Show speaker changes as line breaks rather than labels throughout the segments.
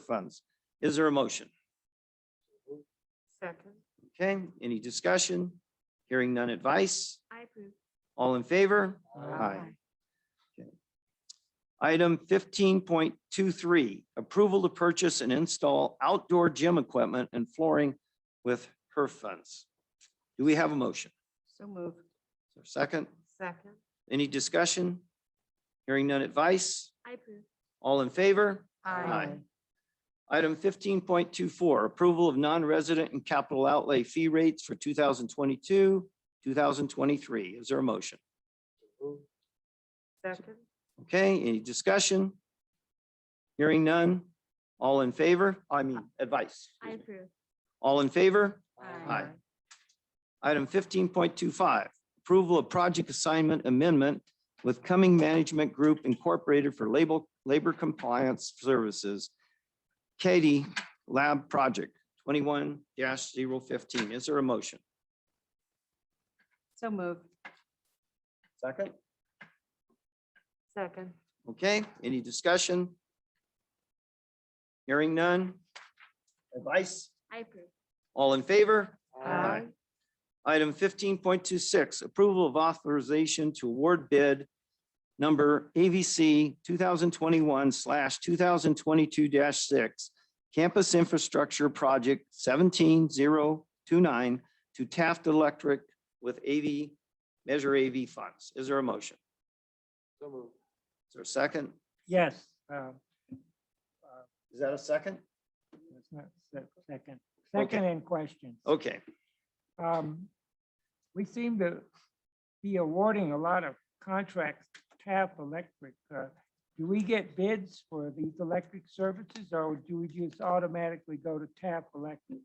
funds. Is there a motion?
Second.
Okay, any discussion? Hearing none advice?
I approve.
All in favor? Aye. Item fifteen point two three, approval to purchase and install outdoor gym equipment and flooring with HERF funds. Do we have a motion?
So move.
Is there a Second,
Second.
any discussion? Hearing none advice?
I approve.
All in favor?
Aye.
Item fifteen point two four, approval of non-resident and capital outlay fee rates for two thousand twenty-two, two thousand twenty-three. Is there a motion?
Second.
Okay, any discussion? Hearing none. All in favor? I mean, advice.
I
excuse me.
approve.
All in favor?
Aye.
Item fifteen point two five, approval of project assignment amendment with Cumming Management Group Incorporated for label, labor compliance services. Katie Lab Project twenty-one 15 Is there a motion?
So move.
Second.
Second.
Okay, any discussion? Hearing none. Advice?
I approve.
All in favor?
Aye.
Item fifteen point two six, approval of authorization to award bid number AVC two thousand twenty-one slash two thousand twenty-two six, Campus Infrastructure Project seventeen zero two nine to Taft Electric with AV, Measure AV funds. Is there a motion? Is there a second?
Yes. uh,
Is that a second?
that's not se- Second,
Okay. Oh,
second in question.
Okay,
Um, We seem to be awarding a lot of contracts, tap electric. uh, Do we get bids for these electric services or do we just automatically go to tap electric?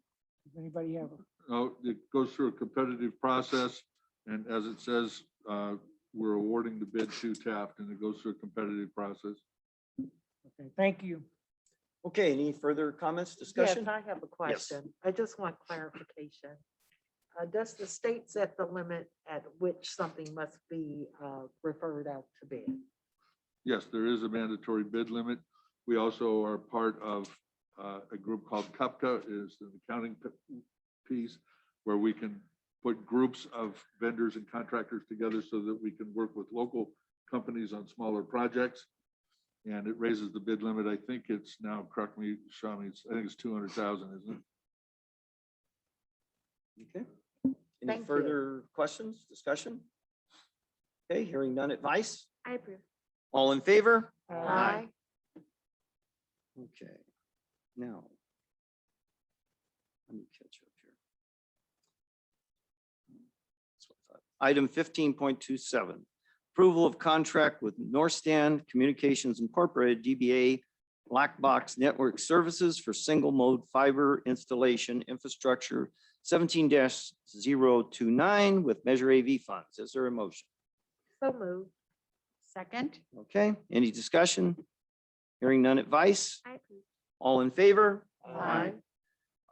Does anybody have? a-
Oh, it goes through a competitive process, and as it says, uh, we're awarding the bid to Taft, and it goes through a competitive process.
Okay, thank you.
okay, any further comments,
Yes,
discussion?
I have a question. I just want clarification. Uh, Does the state set the limit at which something must be uh, referred out to bid?
Yes, there is a mandatory bid limit. We also are part of uh, a group called CUPCA, is an accounting p- piece where we can put groups of vendors and contractors together so that we can work with local companies on smaller projects. And it raises the bid limit. I think it's now, correct me, Shami, it's- I think it's 200,000, isn't it?
Okay.
Thank
Any
you.
further questions, discussion? Okay, hearing none advice?
I approve.
All in favor?
Uh,
Okay, now. Let me catch up here. That's what I thought. Item fifteen point two seven, approval of contract with Norstan Communications Incorporated, DBA Black Box Network Services for single mode fiber installation infrastructure seventeen 29 with Measure AV funds. Is there a motion?
So moved.
Second.
Okay, any discussion? Hearing none advice?
I approve.
All in favor?
Aye.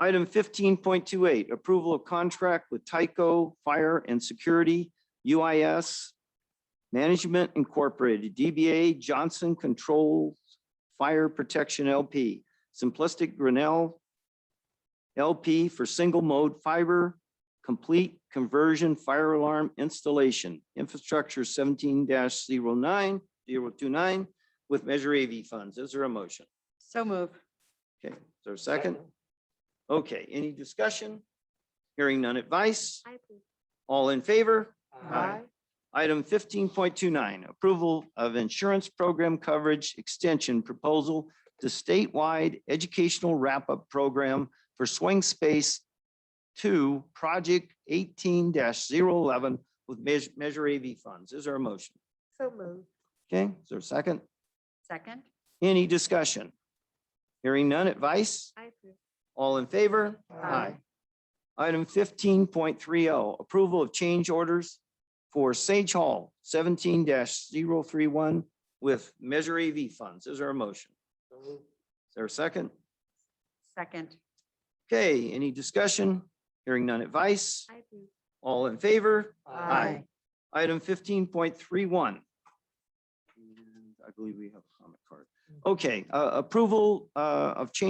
Item fifteen point two eight, approval of contract with Tyco Fire and Security UIS Management Incorporated, DBA Johnson Controls Fire Protection LP, Simplistic Grinnell LP for single mode fiber, complete conversion fire alarm installation, infrastructure seventeen 9 zero nine, zero two nine with Measure AV funds. Is there a motion?
So move.
Okay, is there a second? Okay, any discussion? Hearing none advice?
I approve.
All in favor?
Aye.
Item fifteen point two nine, approval of insurance program coverage extension proposal to statewide educational wrap-up program for swing space two, project eighteen 11 with Meas- Measure AV funds. Is there a motion?
So moved.
Okay, is there a second?
Second.
Any discussion? Hearing none advice?
I approve.
All in favor?
Aye.
Item fifteen point three oh, approval of change orders for Sage Hall seventeen 31 with Measure AV funds. Is there a motion? Is there a second?
Second.
Okay, any discussion? Hearing none advice?
I approve.
All in favor? Item fifteen point three one. I believe we have a comment card. Okay, uh, approval, uh, of change